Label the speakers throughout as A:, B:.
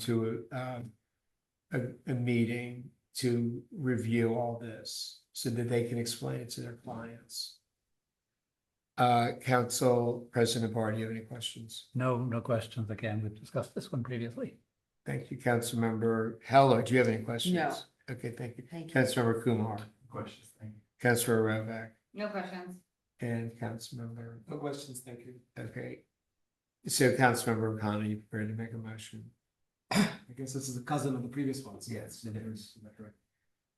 A: to uh, a, a meeting to review all this so that they can explain it to their clients. Uh, Council President Bar, do you have any questions?
B: No, no questions. Again, we've discussed this one previously.
A: Thank you, Councilmember Heller. Do you have any questions?
C: No.
A: Okay, thank you.
C: Thank you.
A: Councilmember Kumar,
D: Questions, thank you.
A: Councilor Rovak,
C: No questions.
A: and Councilmember,
D: No questions, thank you.
A: okay. So Councilmember O'Connor, you prepared to make a motion?
D: I guess this is a cousin of the previous ones.
A: Yes, it is.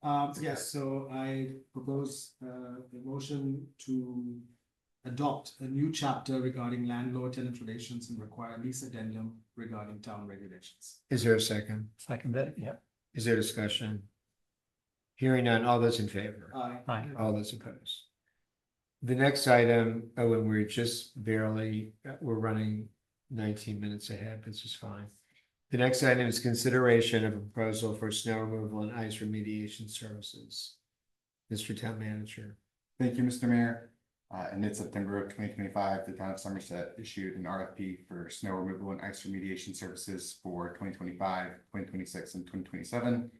D: Um, yes, so I propose uh, a motion to adopt a new chapter regarding landlord-tenant relations and require lease addendum regarding town regulations.
A: Is there a second?
B: Second it, yeah.
A: Is there discussion? Hearing none, all those in favor?
D: Aye.
B: Aye.
A: All those opposed. The next item, oh, and we're just barely, uh, we're running nineteen minutes ahead, this is fine. The next item is consideration of a proposal for snow removal and ice remediation services. Mr. Town Manager,
E: Thank you, Mr. Mayor. Uh, in mid-September of twenty twenty-five, the town of Somerset issued an RFP for snow removal and ice remediation services for 2025, 2026, and twenty twenty-seven.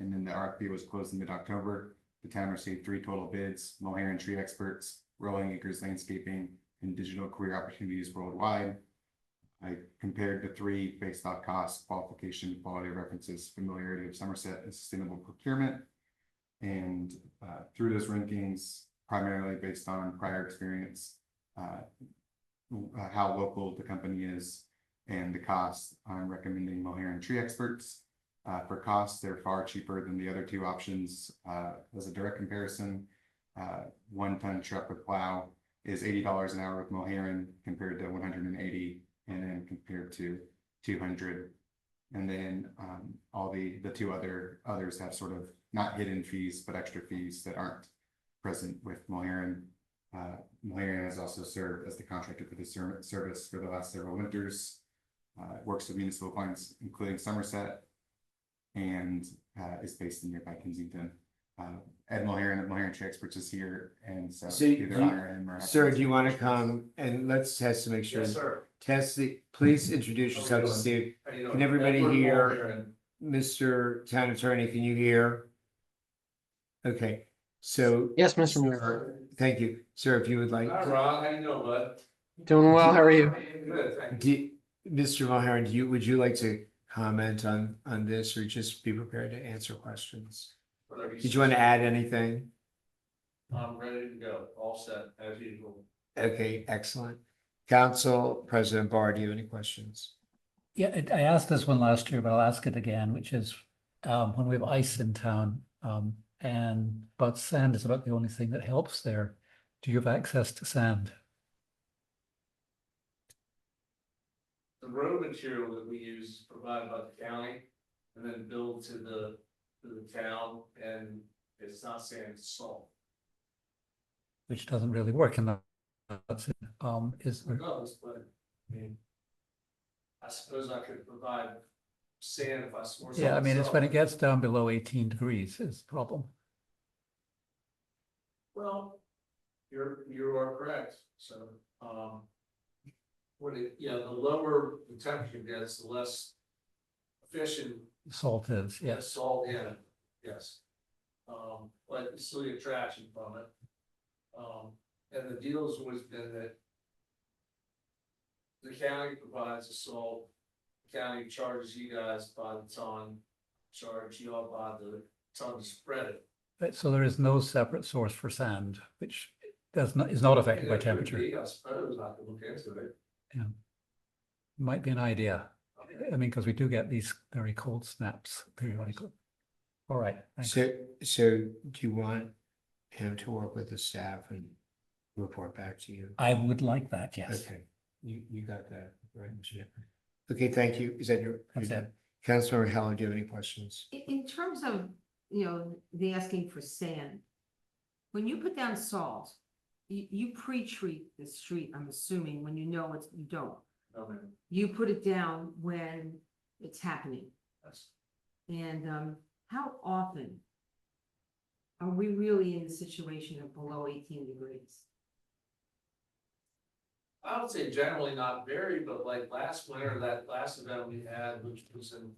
E: And then the RFP was closed in mid-October. The town received three total bids, Mohair Tree Experts, Rolling Acres Landscaping, and Digital Career Opportunities Worldwide. I compared the three based off cost, qualification, quality of references, familiarity of Somerset, and sustainable procurement. And uh, through those rankings, primarily based on prior experience, uh, w- uh, how local the company is and the cost, I'm recommending Mohair and Tree Experts. Uh, for costs, they're far cheaper than the other two options. Uh, as a direct comparison, uh, one ton truck with plow is eighty dollars an hour with Moheran compared to one hundred and eighty and then compared to two hundred and then um all the the two other others have sort of not hidden fees, but extra fees that aren't present with Moheran. Uh, Moheran has also served as the contractor for the ser- service for the last several winters. Uh, it works with municipal clients, including Somerset. And uh is based in nearby Kensington. Uh, Ed Moheran of Moheran Tree Experts is here and so
A: So you-
E: either I or him or.
A: sir, do you want to come and let's test to make sure?
D: sir.
A: Test the, please introduce yourself to see, Can everybody Edward hear? Mr. Town Attorney, can you hear? Okay, so,
F: Yes, Mr. Mayor.
A: thank you, sir, if you would like.
D: how you doing, bud?
F: Doing well. How are you?
D: Good, thank
A: Do, Mr. Mulhern, do you, would you like to comment on, on this or just be prepared to answer questions? Did you want to add anything?
G: I'm ready to go, all set as usual.
A: Okay, excellent. Council President Barr, do you have any questions?
B: Yeah, it- I asked this one last year, but I'll ask it again, which is um, when we have ice in town um, and but sand is about the only thing that helps there. Do you have access to sand?
G: The road material that we use is provided by the county and then billed to the, to the town and it's not sand, it's salt.
B: Which doesn't really work in that. that's it. Um, is
G: It
B: there-
G: does, but I mean, I suppose I could provide sand if I swore.
B: yeah, I mean, it's when it
G: something
B: gets down below eighteen degrees is the problem.
G: Well, you're, you are correct, so, um. When it, yeah, the lower the temperature gets, the less efficient
B: Salt is,
G: Yeah,
B: yes.
G: salt, yeah, yes. Um, but it's still the attraction from it. Um, and the deal's always been that. The county provides the salt, The county charges you guys by the ton, charge you all by the ton to spread it.
B: But- So there is no separate source for sand, which does not, is not affected by
G: There could
B: temperature.
G: be, I suppose I could look into it.
B: Might be an idea. I mean, because we do get these very cold snaps periodically. All right, thanks.
A: So, so do you want him to work with the staff and report back to you?
B: I would like that, yes.
A: Okay, you, you got that, right? Mr. Chairman? Okay, thank you. Is that your?
B: That's it.
A: Councilmember Heller, do you have any questions?
C: In, in terms of, you know, the asking for sand, when you put down salt, you, you pre-treat the street, I'm assuming, when you know it's, you don't.
G: No, man,
C: You put it down when it's happening.
G: that's-
C: And, um, how often are we really in the situation of below eighteen degrees?
G: I would say generally not very, but like last winter, that last event we had, which was in